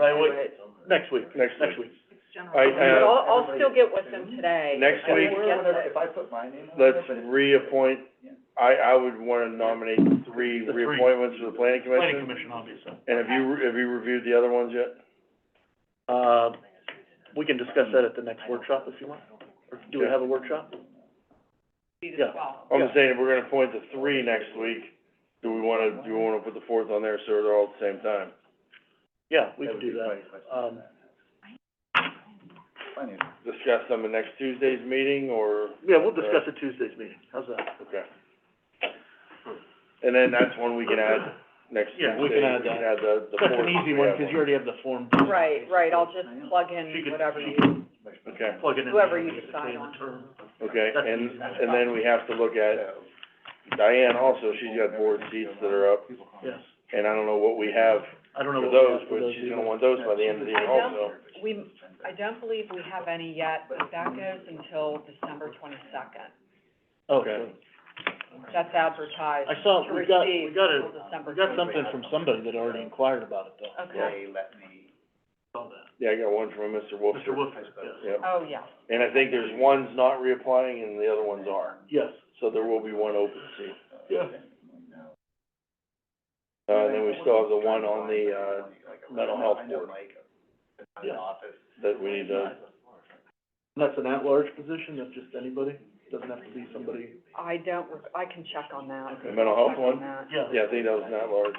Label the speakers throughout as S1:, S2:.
S1: I would, next week,
S2: Next
S1: next week.
S2: I,
S3: I'll,
S2: uh,
S3: I'll still get with them today.
S2: Next
S3: I
S2: week-
S3: didn't get that.
S4: If I put my name on it,
S2: let's
S4: but it's-
S2: reappoint, I, I would wanna nominate three
S1: The three.
S2: reappointments to the planning
S1: Planning commission,
S2: commission.
S1: obviously.
S2: And have you, have you reviewed the other ones yet?
S1: Uh, we can discuss that at the next workshop if you want, or do we have a workshop? Yeah.
S2: I'm
S1: Yeah.
S2: just saying, if we're gonna appoint the three next week, do we wanna, do we wanna put the fourth on there so they're all at the same time?
S1: Yeah, we
S4: that
S1: can
S4: would
S1: do
S4: be
S1: that.
S4: my question.
S1: Um,
S4: Plenty of-
S2: Discuss them in next Tuesday's meeting, or?
S1: yeah, we'll discuss it Tuesday's meeting, how's that?
S2: Okay. And then that's one we can add next Tuesday.
S1: Yeah, we can add that.
S2: the, the
S1: That's
S2: fourth
S1: an
S2: if
S1: easy
S2: we
S1: one,
S2: have
S1: because you already have the form.
S3: Right, right, I'll just plug
S1: She
S3: in
S1: could-
S3: whatever
S1: she
S3: you,
S2: Okay,
S1: Plug it in.
S3: Whoever you
S1: between
S3: decide on.
S1: the term.
S2: okay,
S1: That's
S2: and,
S1: easy.
S2: and then we have to look at, Diane also, she's got board seats that are up,
S1: Yes,
S2: and I don't know what we have
S1: I don't know
S2: for
S1: what we have
S2: those,
S1: for
S2: but
S1: those
S2: she's
S1: either.
S2: gonna want those by the end of the year
S3: I don't-
S2: also.
S3: we, I don't believe we have any yet, but that goes until December twenty-second.
S1: Okay,
S3: That's advertised
S1: I saw,
S3: to
S1: we got, we
S3: receive
S1: got a,
S3: until December
S1: we got something
S3: 22nd.
S1: from somebody that already inquired about it, though.
S3: Okay,
S4: They let me,
S1: Saw that.
S2: Yeah, I got one from Mr. Wolfster.
S1: Mr. Wolfers, yes.
S2: Yep,
S3: oh, yeah,
S2: and I think there's one's not reapplying and the other ones are,
S1: Yes.
S2: so there will be one open seat.
S1: Yeah.
S2: Uh, and then we still have the one on the, uh, mental health
S4: I know
S2: board.
S4: Mike, uh, in
S1: Yeah.
S4: the office.
S2: that we need to,
S1: That's an at-large position, that's just anybody, doesn't have to be somebody.
S3: I don't, re- I can check on that.
S2: the mental health
S3: Check on
S2: one?
S3: that.
S1: Yeah.
S2: Yeah, I think that was not large.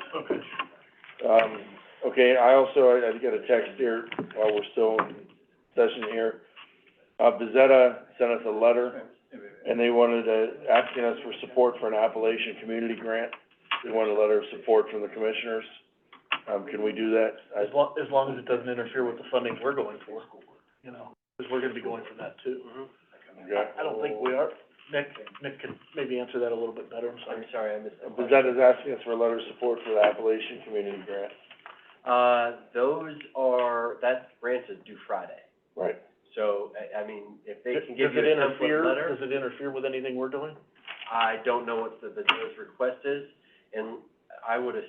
S1: Okay.
S2: Um, okay, I also, I, I got a text here while we're still in session here. Uh, Bezetta sent us a letter and they wanted to, asking us for support for an Appalachian Community Grant. They wanted a letter of support from the commissioners. Um, can we do that?
S1: As
S2: I-
S1: lo- as long as it doesn't interfere with the funding we're going for, you know, because we're gonna be going for that too.
S2: yeah.
S1: I don't think we are, Nick, Nick can maybe answer that a little bit better, I'm sorry.
S4: sorry, I missed
S2: Bezetta's asking us for a letter of support for the Appalachian Community Grant.
S4: Uh, those are, that grant is due Friday,
S2: Right.
S4: so, I, I mean, if they
S1: Does it interfere, does it interfere with anything we're doing?
S4: I don't know what the, the judge's request is, and I would as-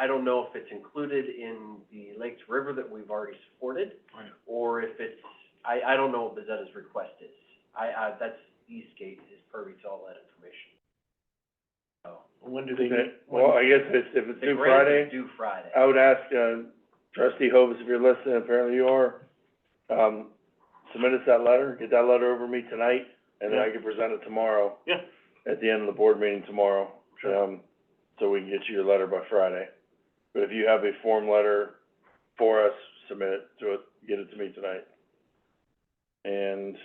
S4: I don't know if it's included in the Lakes River that we've already supported,
S1: Right.
S4: or if it's, I, I don't know what Bezetta's request is. I, I, that's, Eastgate is privy to all that information. So,
S1: When do they
S2: Okay,
S1: meet? When-
S2: well, I guess if it's, if it's
S4: the
S2: due
S4: grant
S2: Friday.
S4: is due Friday.
S2: I would ask, uh, trustee Hovis, if you're listening, apparently you are, um, submit us that letter, get that letter over me tonight, and then I can present it tomorrow.
S1: Yeah.
S2: At the end of the board meeting tomorrow.
S1: Sure.
S2: Um, so we can get you your letter by Friday. But if you have a form letter for us, submit it to it, get it to me tonight. And,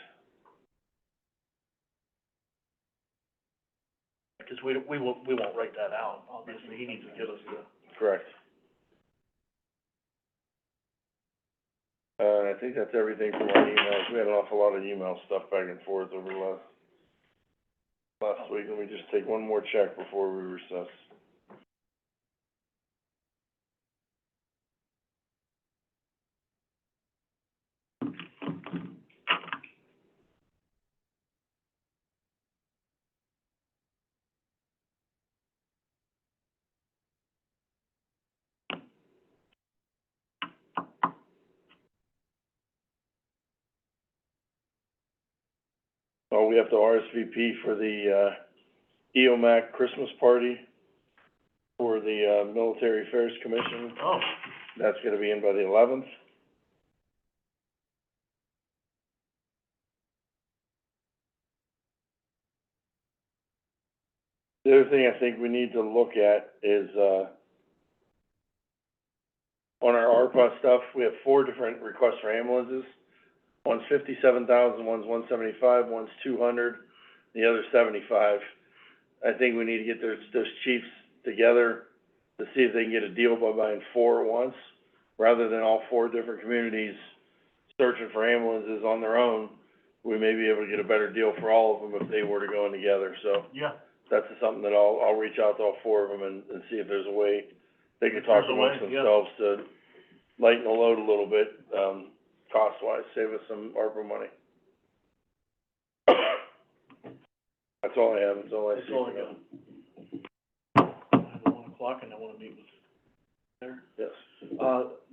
S1: Because we, we won't, we won't write that out, obviously, he needs to give us the.
S2: correct. Uh, I think that's everything from our emails. We had an awful lot of email stuff back and forth over the last, last week. Let me just take one more check before we recess. Oh, we have to RSVP for the, uh, EOMAC Christmas party for the, uh, Military Affairs Commission.
S1: Oh.
S2: That's gonna be in by the eleventh. The other thing I think we need to look at is, uh, on our ARPA stuff, we have four different requests for ambulances. One's fifty-seven thousand, one's one seventy-five, one's two hundred, the other's seventy-five. I think we need to get those, those chiefs together to see if they can get a deal by buying four at once, rather than all four different communities searching for ambulances on their own. We may be able to get a better deal for all of them if they were to go in together, so
S1: Yeah.
S2: that's something that I'll, I'll reach out to all four of them and, and see if there's a way they can talk
S1: There's a way,
S2: amongst
S1: yeah.
S2: themselves to lighten the load a little bit, um, cost-wise, save us some ARPA money. That's all I have, that's all I see.
S1: That's all I
S2: for now.
S1: got. I have a one o'clock and I wanna meet with there?
S2: Yes.
S1: Uh,